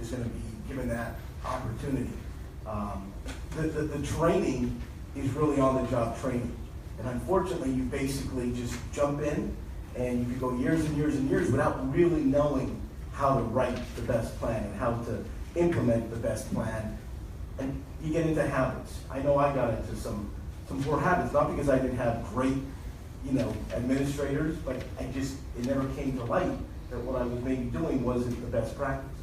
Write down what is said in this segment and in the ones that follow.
is gonna be given that opportunity. Um, The, the, the training is really on-the-job training. And unfortunately, you basically just jump in and you could go years and years and years without really knowing how to write the best plan and how to implement the best plan. And you get into habits. I know I got into some, some poor habits, not because I didn't have great, you know, administrators, but I just, it never came to light that what I was maybe doing wasn't the best practice.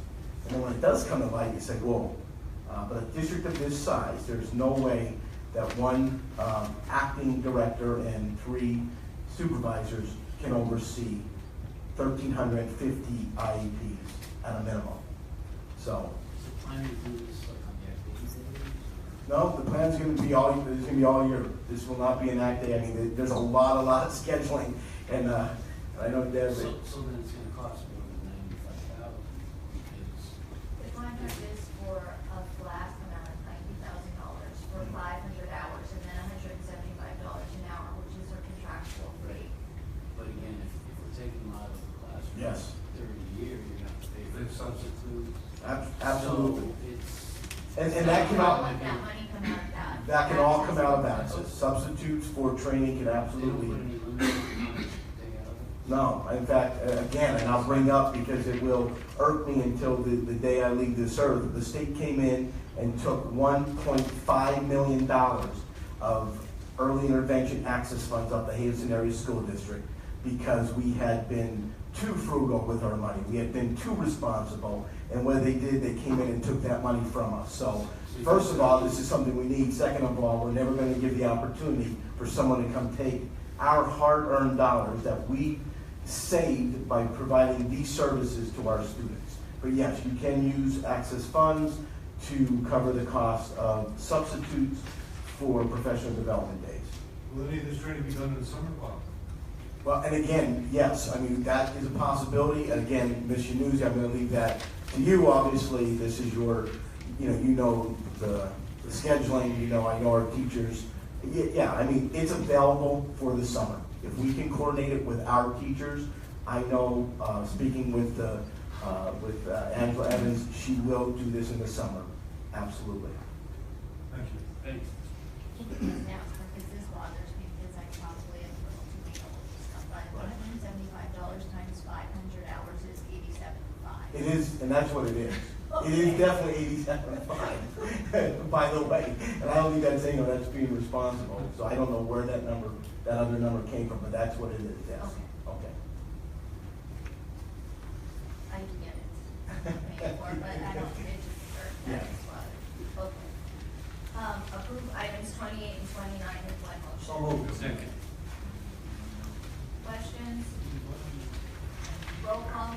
And then when it does come to light, you say, whoa, uh, but a district of this size, there's no way that one, um, acting director and three supervisors can oversee thirteen hundred and fifty IEPs at a minimum. So, So planning to do this like on the activities that no, the plan's gonna be all, it's gonna be all year. This will not be an act day. I mean, there- there's a lot, a lot of scheduling and, uh, I know we do? Deb, So, so then it's gonna cost more than ninety-five thousand, because The contract is for a flat amount of ninety thousand dollars for Mm-hmm. five hundred hours and then hundred and seventy-five dollars an hour, which is our contractual rate. But again, if, if we're taking them out of the classroom. Yes. During the year, you're gonna have to pay for There's some- substitutes. ab- absolutely. So it's. And, and that can all, Let that money come out of that. that can all come out of that. So Substitutes for training can They don't absolutely. put any limit on how much they get out of it. No, in fact, uh, again, and I'll bring up because it will irk me until the, the day I leave this earth. The state came in and took one point five million dollars of early intervention access funds off the Hazelton Area School District because we had been too frugal with our money. We had been too responsible, and what they did, they came in and took that money from us. So, first of all, this is something we need. Second of all, we're never gonna give the opportunity for someone to come take our hard-earned dollars that we saved by providing these services to our students. But yes, you can use access funds to cover the cost of substitutes for professional development days. Will any of this training be done in the summer? Well, Well, and again, yes, I mean, that is a possibility. And again, Ms. Yanuzi, I'm gonna leave that to you, obviously. This is your, you know, you know the the scheduling, you know, I know our teachers. Ye- Yeah, I mean, it's available for the summer. If we can coordinate it with our teachers, I know, uh, speaking with, uh, uh, with uh, Angela Evans, she will do this in the summer, absolutely. Thank you. Thanks. Now, because this bothers me, because I probably have a little too many dollars to stuff, but one hundred and seventy-five dollars times five hundred hours is eighty-seven five. It is, and that's what it is. It is definitely eighty-seven five, by the way. And I don't think that's, you know, that's being responsible, so I don't know where that number, that other number came from, but that's what it is, yes. Okay. I can get it. Paid for, but I don't, it just hurt, that's why. Okay. Um, approve items twenty-eight and twenty-nine in one motion. So moved. Second. Questions? Roll call?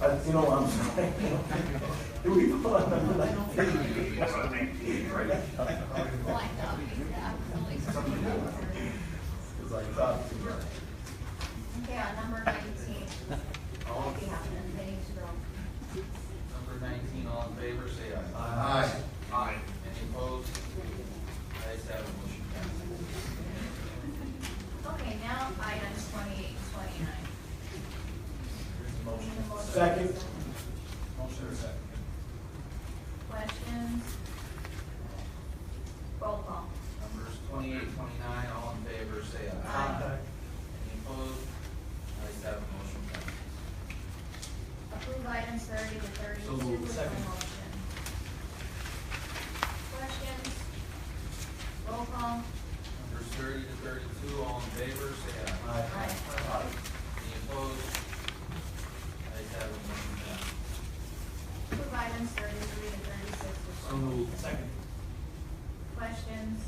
Uh, you know, I'm sorry. Do we vote on number nineteen? Blacked out, yeah, really. Because I thought. uh, Okay, on number nineteen. All be happening, they need to go. Number nineteen, all in favor, say aye. Aye. Aye. Any opposed? Ayes have it, motion passes. Okay, now items twenty-eight, twenty-nine. Need a motion. Second. Motion is second. Questions? Roll call. Numbers twenty-eight, twenty-nine, all in favor, say aye. Aye. Any opposed? Ayes have it, motion passes. Approve items thirty to thirty-two So with the moved. motion. Second. Questions? Roll call. Numbers thirty to thirty-two, all in favor, say aye. Aye. Any opposed? Ayes have it, motion passes. Approve items thirty-three to thirty-six with the motion. Second. Questions?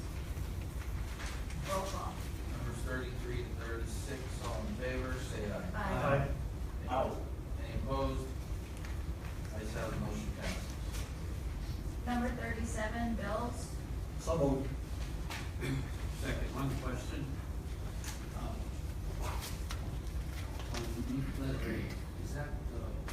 Roll call. Numbers thirty-three to thirty-six, all in favor, say aye. Aye. Out. Any opposed? Ayes have it, motion passes. Number thirty-seven, bills. So moved. Second, one question. Um, On the letter, is that the um,